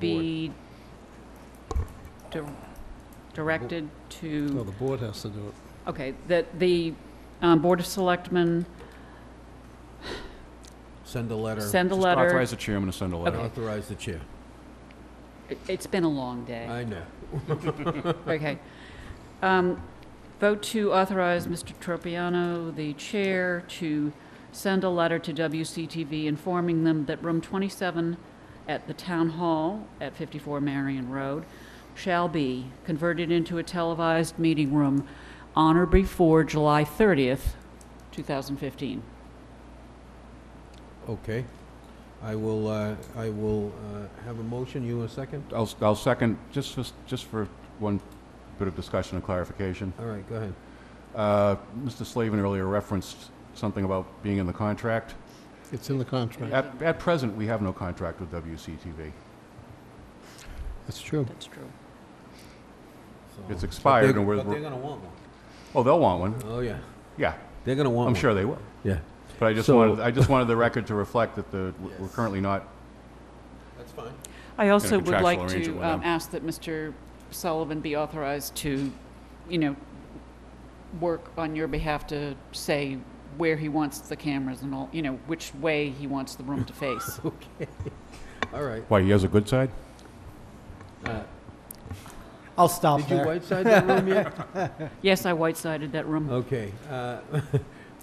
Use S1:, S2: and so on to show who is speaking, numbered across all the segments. S1: be dir- directed
S2: No,
S1: to,
S2: the board has to do it.
S3: Oh.
S1: okay, that the um, Board of Selectmen
S4: Send a letter.
S1: send a
S3: Just
S1: letter.
S3: Authorize the chairman to send a letter.
S4: Authorize the chair.
S1: It- It's been a long day.
S4: I know.
S1: Okay. Um, Vote to authorize Mr. Tropiano, the chair, to send a letter to WCTV informing them that room 27 at the Town Hall at 54 Marion Road shall be converted into a televised meeting room on or before July 30th, 2015.
S4: Okay. I will, uh, I will uh, have a motion. You a second?
S3: I'll, I'll second, just, for- just for one bit of discussion and clarification.
S4: All right, go ahead.
S3: Uh, Mr. Slavin earlier referenced something about being in the contract.
S2: It's in the contract.
S3: At, at present, we have no contract with WCTV.
S2: That's true.
S1: That's true.
S4: So-
S3: It's expired
S4: But
S3: and
S4: they're-
S3: we're-
S4: But they're gonna want one.
S3: Oh, they'll want one,
S4: Oh, yeah.
S3: yeah,
S4: They're gonna want one.
S3: I'm sure they will.
S4: Yeah.
S3: But I just
S4: So-
S3: wanted, I just wanted the record to reflect that the, we're
S4: Yes.
S3: currently not,
S4: That's fine.
S1: I also would
S3: contractual
S1: like
S3: arrangement
S1: to
S3: with
S1: um,
S3: them.
S1: ask that Mr. Sullivan be authorized to, you know, work on your behalf to say where he wants the cameras and all, you know, which way he wants the room to face.
S4: All right.
S3: why, he has a good side?
S4: Uh,
S5: I'll stop
S4: Did you
S5: there.
S4: whiteside that room yet?
S1: Yes, I white-sided that room.
S4: Okay. uh,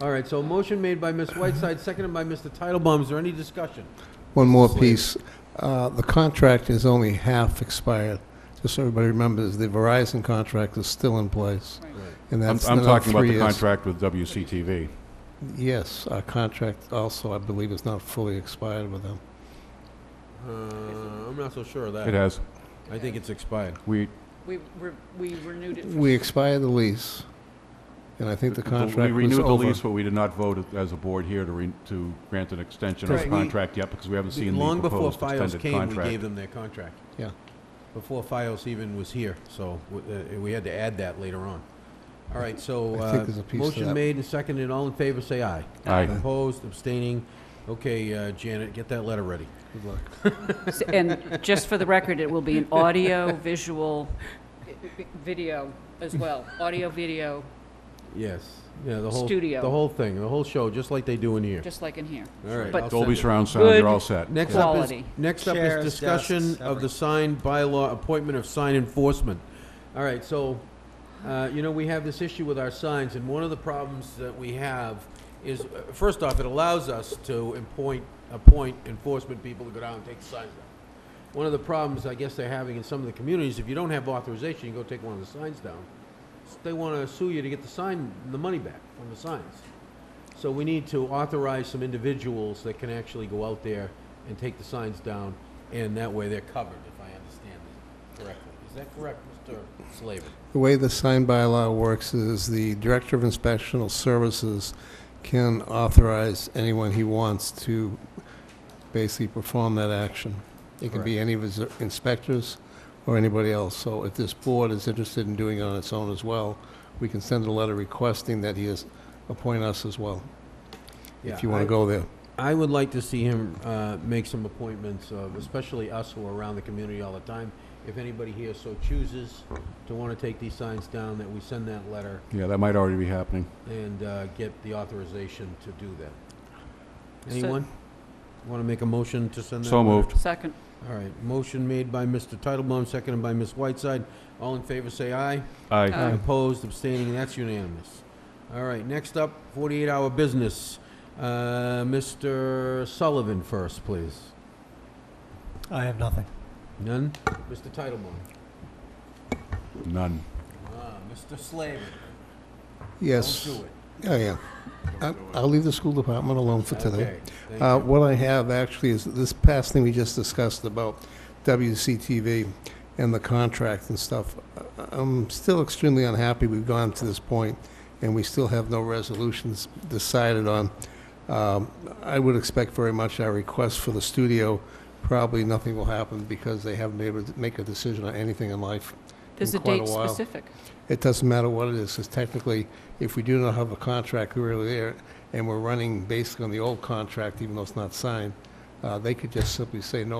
S4: All right, so a motion made by Ms. Whiteside, seconded by Mr. Titlebaum. Is there any discussion?
S2: One more
S4: Slate.
S2: piece. Uh, The contract is only half expired. Just so everybody remembers, the Verizon contract is still in place, and
S3: I'm,
S2: that's
S3: I'm
S2: another
S3: talking about
S2: three
S3: the
S2: years.
S3: contract with WCTV.
S2: Yes, our contract also, I believe, is not fully expired with them.
S4: Uh, I'm not so sure of
S3: It
S4: that.
S3: has,
S4: I think it's expired.
S3: we,
S1: We re- we renewed it.
S2: We expired the lease, and I think the contract
S3: We
S2: was
S3: renewed the
S2: over.
S3: lease, but we did not vote as a board here to, re- to grant an extension of the
S4: Correct. We-
S3: contract yet, because we haven't seen the
S4: Long before
S3: proposed
S4: FiOS
S3: extended
S4: came, we gave
S3: contract.
S4: them their contract.
S2: Yeah.
S4: Before FiOS even was here, so w- uh, we had to add that later on. All right, so,
S2: I think
S4: uh,
S2: there's a piece to
S4: motion
S2: that.
S4: made and seconded, all in favor, say aye.
S3: Aye.
S4: Opposed, abstaining. Okay, uh, Janet, get that letter ready.
S2: Good luck.
S1: S- And just for the record, it will be an audio, visual, i- i- video as well, audio, video,
S4: Yes, yeah, the whole.
S1: Studio.
S4: The whole thing, the whole show, just like they do in here.
S1: just like in here.
S4: All right.
S1: but-
S4: I'll send
S3: Dolby
S4: it.
S3: surround sound,
S1: Good.
S3: you're all set.
S4: Next
S3: Yeah.
S4: up is,
S1: Quality.
S4: next up is
S5: Chairs,
S4: discussion
S5: desks,
S4: of the signed bylaw appointment of sign enforcement. All right, so, uh, you know, we have this issue with our signs, and one of the problems that we have is, uh, first off, it allows us to appoint, appoint enforcement people to go down and take the signs down. One of the problems I guess they're having in some of the communities, if you don't have authorization, you go take one of the signs down. They wanna sue you to get the sign, the money back from the signs. So we need to authorize some individuals that can actually go out there and take the signs down, and that way they're covered, if I understand it correctly. Is that correct, Mr. Slavin?
S2: The way the sign bylaw works is the Director of Inspectional Services can authorize anyone he wants to basically perform that action. It can be any of his inspectors or anybody else. So if this board is interested in doing it on its own as well, we can send a letter requesting that he is, appoint us as well, if you want to go there.
S4: I would like to see him uh, make some appointments, of- especially us who are around the community all the time. If anybody here so chooses to want to take these signs down, that we send that letter
S3: Yeah, that might already be happening.
S4: and uh, get the authorization to do that.
S1: So-
S4: Anyone want to make a motion to send that?
S3: So
S4: letter?
S3: moved.
S1: Second,
S4: All right, motion made by Mr. Titlebaum, seconded by Ms. Whiteside. All in favor, say aye.
S1: Aye.
S4: Opposed, abstaining, that's unanimous. All right, next up, 48-hour business. Uh, Mr. Sullivan first, please.
S5: I have nothing.
S4: None? Mr. Titlebaum?
S3: None.
S4: Ah, Mr. Slavin?
S2: Yes.
S4: Don't do it.
S2: Yeah, yeah. I- I'll leave the school department alone for today.
S4: Okay, thank
S2: Uh,
S4: you.
S2: What I have actually is this past thing we just discussed about WCTV and the contract and stuff. I- I'm still extremely unhappy we've gone to this point and we still have no resolutions decided on. Um, I would expect very much our request for the studio, probably nothing will happen because they haven't been able to make a decision on anything in life.
S1: there's a
S2: In quite a
S1: date
S2: while.
S1: specific.
S2: It doesn't matter what it is, because technically, if we do not have a contract, we're really there, and we're running basically on the old contract, even though it's not signed, uh, they could just simply say no